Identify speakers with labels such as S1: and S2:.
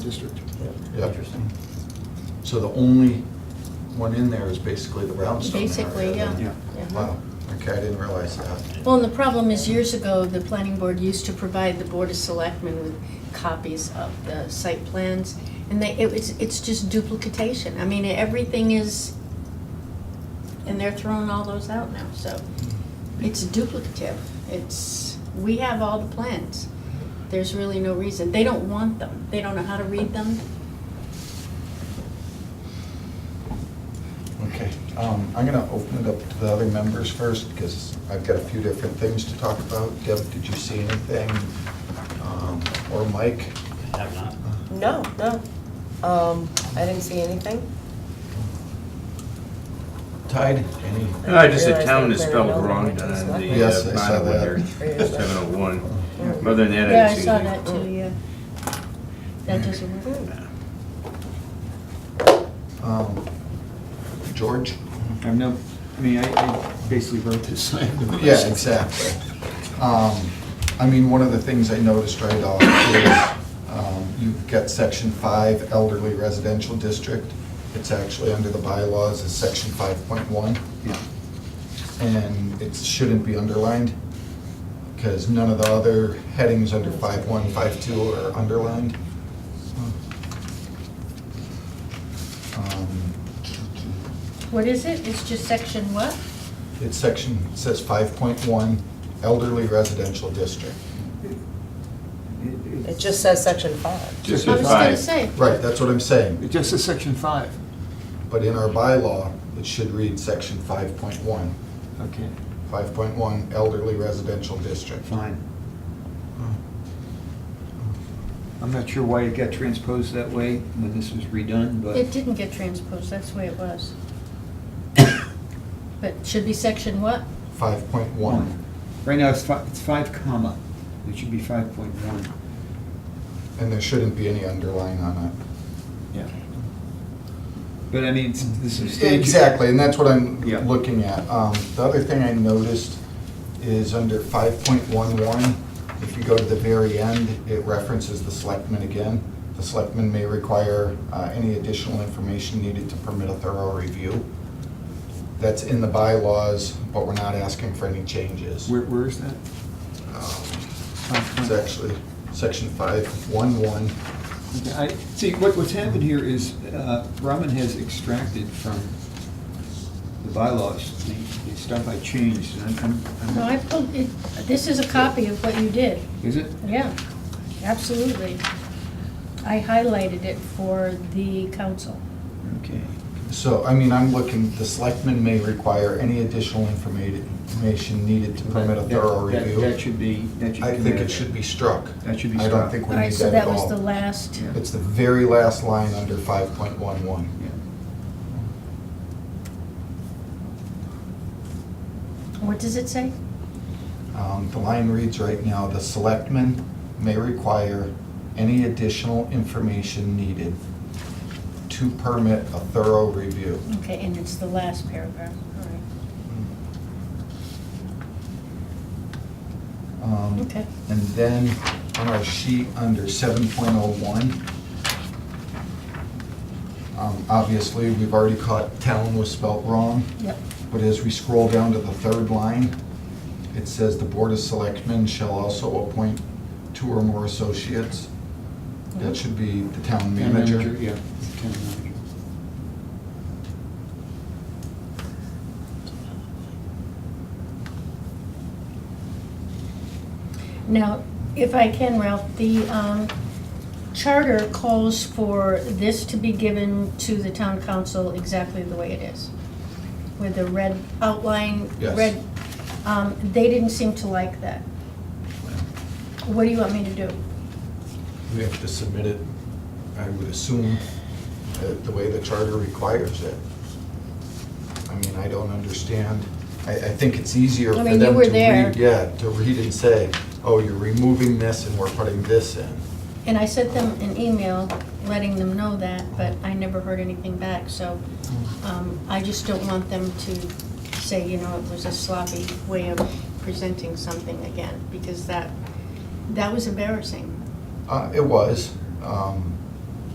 S1: district.
S2: Yeah.
S3: Interesting.
S2: So the only one in there is basically the brownstone area.
S4: Basically, yeah.
S2: then?
S3: Yeah.
S4: Yeah.
S2: Wow, okay, I didn't realize that.
S4: Well, and the problem is years ago, the planning board used to provide the board of selectmen with copies of the site plans. And they, it was, it's just duplication. I mean, everything is, and they're throwing all those out now, so it's duplicative. It's, we have all the plans. There's really no reason. They don't want them. They don't know how to read them.
S2: Okay, um, I'm gonna open it up to the other members first, because I've got a few different things to talk about. Deb, did you see anything? Um, Or Mike?
S3: Have not.
S5: No, no. Um, I didn't see anything.
S2: Tide, any?
S5: I
S6: Uh, I just said
S5: realized
S6: town
S5: they cleared
S6: is
S5: it
S6: spelled
S5: over
S6: wrong on
S5: to
S6: the
S5: the
S6: uh,
S5: select-
S2: Yes, I saw
S6: bottom
S2: that.
S6: under seven oh one. Other than that,
S4: Yeah,
S6: I
S4: I
S6: didn't see
S4: saw
S6: anything.
S4: that too, yeah. That doesn't work.
S2: Um, George?
S4: Mm-hmm.
S3: I've no, I mean, I, I basically wrote this. I have no
S2: Yeah,
S3: questions.
S2: exactly. Um, I mean, one of the things I noticed right off is um, you've got section five elderly residential district. It's actually under the bylaws is section five point one,
S3: Yeah.
S2: and it shouldn't be underlined because none of the other headings under five one, five two are underlined. Um,
S4: What is it? It's just section what?
S2: It's section, it says five point one elderly residential district.
S3: It-
S5: It
S3: It
S5: just says section five.
S6: Just
S4: I
S6: a
S4: was gonna
S6: five.
S4: say.
S2: Right, that's what I'm saying.
S3: it just says section five.
S2: But in our bylaw, it should read section 5.1,
S3: Okay,
S2: 5.1 elderly residential district.
S3: fine. I'm not sure why it got transposed that way when this was redone, but.
S4: It didn't get transposed, that's the way it was. But should be section what?
S2: 5.1
S3: One. Right now, it's five, it's five comma. It should be five point one.
S2: and there shouldn't be any underline on it.
S3: Yeah. But I mean, it's- this is.
S2: Exactly, and that's what I'm
S3: Yeah.
S2: looking at. Um, The other thing I noticed is under 5.11, if you go to the very end, it references the selectmen again. The selectmen may require uh, any additional information needed to permit a thorough review. That's in the bylaws, but we're not asking for any changes. Um,
S3: Where, where is that?
S2: It's actually section 5.11.
S3: Okay, I, see, what, what's happened here is, uh, Ramen has extracted from the bylaws, the, the stuff I changed, and I'm, I'm-
S4: No, I
S3: I'm,
S4: pulled, it- this is a copy of what you did,
S3: is it?
S4: yeah, absolutely. I highlighted it for the council.
S3: Okay.
S2: So, I mean, I'm looking, the selectmen may require any additional informa- information needed to permit a
S3: That-
S2: thorough
S3: that-
S2: review.
S3: That should be, that should.
S2: I
S3: come
S2: think
S3: out.
S2: it should be struck.
S3: That should be
S2: I don't
S3: struck.
S2: think
S4: All
S2: we
S4: right,
S2: need
S4: so
S2: that
S4: that
S2: at
S4: was the
S2: all.
S4: last,
S3: Yeah.
S2: It's the very last line under 5.11.
S3: Yeah.
S4: what does it say?
S2: Um, The line reads right now, "The selectmen may require any additional information needed to permit a thorough review."
S4: Okay, and it's the last paragraph, all right.
S2: Um,
S4: Okay.
S2: And then on our sheet under seven point oh one, um, obviously, we've already caught town was spelt wrong,
S4: Yep,
S2: but as we scroll down to the third line, it says the Board of Selectmen shall also appoint two or more associates. That should be the town
S3: Town
S2: manager.
S3: Yeah. town manager.
S4: now, if I can, Ralph, the um, charter calls for this to be given to the town council exactly the way it is, with the red outline,
S2: Yes.
S4: red, um, they didn't seem to like that. What do you want me to do?
S2: We have to submit it, I would assume, uh, the way the charter requires it. I mean, I don't understand. I, I think it's easier
S4: I
S2: for
S4: mean, you
S2: them to
S4: were there.
S2: read, yeah, to read and say, oh, you're removing this and we're putting this in.
S4: And I sent them an email letting them know that, but I never heard anything back, so um, I just don't want them to say, you know, it was a sloppy way of presenting something again, because that, that was embarrassing.
S2: Uh, It was. um,